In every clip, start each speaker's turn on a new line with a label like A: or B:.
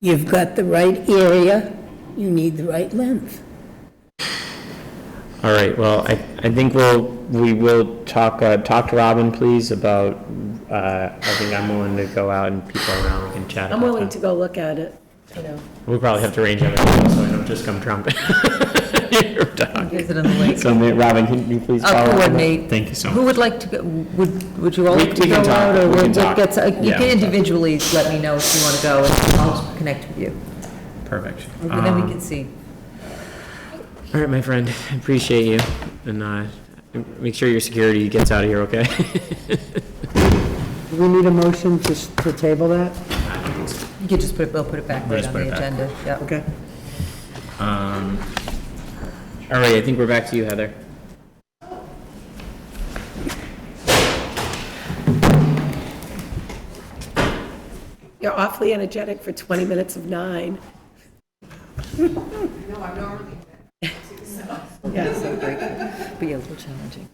A: You've got the right area, you need the right length.
B: All right, well, I, I think we'll, we will talk, uh, talk to Robin, please, about, uh, I think I'm willing to go out and people around and chat.
C: I'm
B: about
C: willing
B: that.
C: to go look at it, you know.
B: We'll probably have to arrange everything, so I don't just come trumpet. Your dog.
D: Is it in the lake?
B: So, ma- Robin, can you please
D: I'll
B: follow up? on that?
D: coordinate.
B: Thank you so
D: Who
B: much.
D: would like to, go? would, would you all
B: We-
D: like to
B: we
D: go
B: can talk.
D: out? or
B: We
D: we'll
B: can
D: get-
B: talk.
D: get some- You
B: Yeah.
D: can individually let me know if you want to go, and I'll connect with you.
B: Perfect.
D: And then we
B: Um,
D: can see.
B: All right, my friend, I appreciate you, and, uh, make sure your security gets out of here, okay?
E: Do we need a motion to, s- to table that?
D: You could just put it, we'll put it back
B: We'll
D: right
B: just
D: on
B: put it
D: the
B: back.
D: agenda, yeah.
E: Okay.
B: Um, all right, I think we're back to you, Heather.
C: You're awfully energetic for 20 minutes of nine.
D: Yeah, so grateful, but yeah, a little challenging.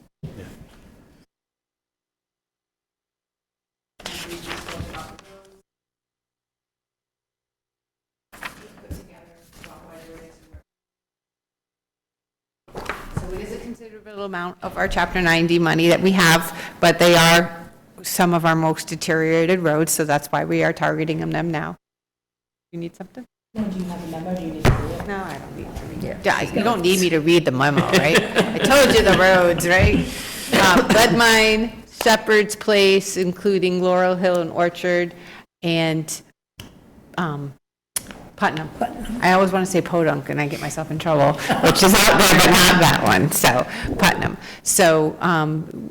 F: So it is a considerable amount of our Chapter 90 money that we have, but they are some of our most deteriorated roads, so that's why we are targeting them now. You need something? No, do you have a memo, do you need to read it? No, I don't need to read it. Yeah, You don't need me to read the memo, right? I told you the roads, right? Um, Leadmine, Shepherd's Place, including Laurel Hill and Orchard, and um, Putnam. I always want to say Podunk, and I get myself in trouble, which is out there, but not that one, so, Putnam. So um,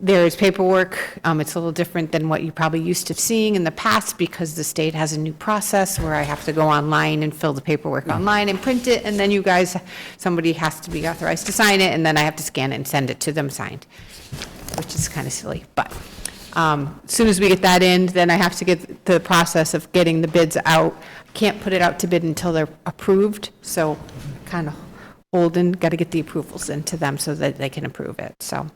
F: there is paperwork, Um, it's a little different than what you probably used to seeing in the past, because the state has a new process where I have to go online and fill the paperwork online and print it, and then you guys, somebody has to be authorized to sign it, and then I have to scan it and send it to them signed which is kind of silly, but um, as soon as we get that in, then I have to get the process of getting the bids out. Can't put it out to bid until they're approved, so kind of holding, got to get the approvals into them so that they can approve it, so.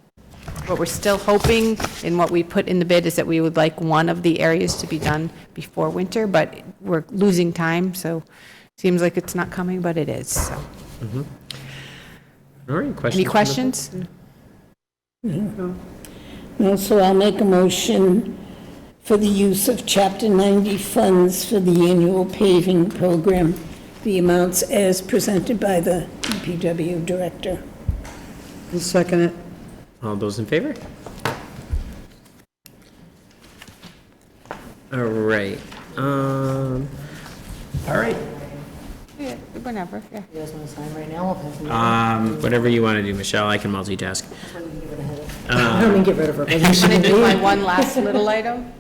F: What we're still hoping and what we put in the bid is that we would like one of the areas to be done before winter, but we're losing time, so seems like it's not coming, but it is, so.
B: All right, questions? from
F: Any
B: the-
F: questions?
A: And so I'll make a motion for the use of Chapter 90 funds for the annual paving program, the amounts as presented by the DPW director.
E: I'll second it.
B: All those in favor? All right, um, all right,
F: Yeah, Whenever, yeah.
E: You guys want to sign right now? I'll pass them.
B: um, whatever you want to do, Michelle, I can multitask.
E: I don't mean get rid of her.
F: Want to do my one last little item?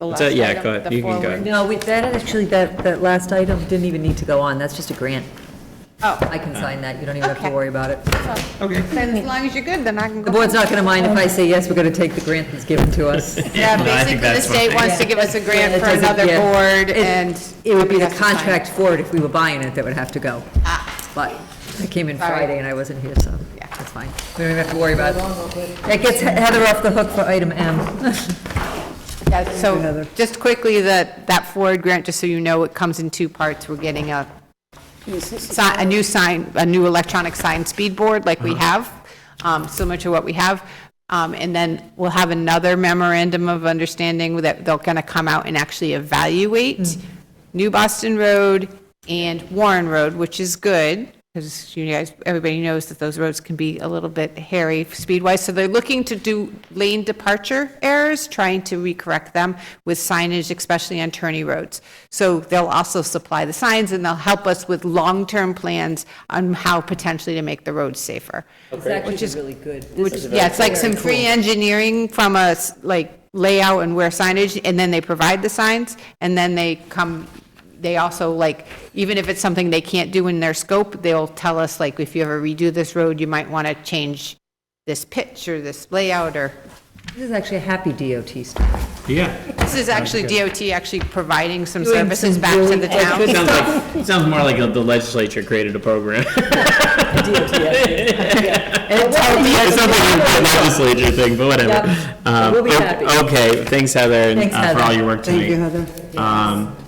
F: The
B: It's a-
F: last
B: yeah,
F: item,
B: go ahead.
F: the
B: You can go
F: forward.
D: No, we, that, actually, that, that last item didn't even need to go on, that's just a grant.
F: Oh,
D: I can sign that, you don't even have to
F: Okay.
D: worry about it.
F: then as long as you're good, then I can go.
D: The board's not going to mind if I say, yes, we're going to take the grant that's given to us.
F: Yeah,
B: No, I think
F: basically, the
B: that's
F: state
B: fine.
F: wants to give us a grant
D: It
F: for
D: doesn't-
F: another
D: yeah.
F: board,
D: It-
F: and.
D: It would be the
F: somebody has to sign it.
D: contract for it if we were buying it that would have to go. But I came in
F: Sorry.
D: Friday and I wasn't here, so
F: Yeah.
D: that's fine. We don't even have to worry about it. That gets Heather off the hook for item M.
F: Yeah, So, just quickly, that, that Ford grant, just so you know, it comes in two parts. We're getting a, si- a new sign, a new electronic sign speed board like we have, um, similar to what we have. Um, And then we'll have another memorandum of understanding that they're going to come out and actually evaluate New Boston Road and Warren Road, which is good, because you guys, everybody knows that those roads can be a little bit hairy speed-wise. So they're looking to do lane departure errors, trying to recorrect them with signage, especially on tourney roads. So they'll also supply the signs, and they'll help us with long-term plans on how potentially to make the roads safer.
D: It's actually really good.
F: Which, yeah, it's like some free engineering from a, s- like, layout and where signage, and then they provide the signs, and then they come, they also, like, even if it's something they can't do in their scope, they'll tell us, like, if you ever redo this road, you might want to change this pitch or this layout, or,
D: This is actually a happy DOT stuff.
B: Yeah.
F: this is actually DOT actually providing some
D: Doing some
F: services back to
D: really
F: the town.
B: It sounds like, it sounds more like the legislature created a program. It sounds like a legislature thing, but whatever.
D: Yep.
B: Um,
D: We'll be
B: o-
D: happy.
B: Okay, thanks Heather, and
D: Thanks,
B: uh, for all
D: Heather.
B: your work tonight.
E: Thank you, Heather.
B: Um,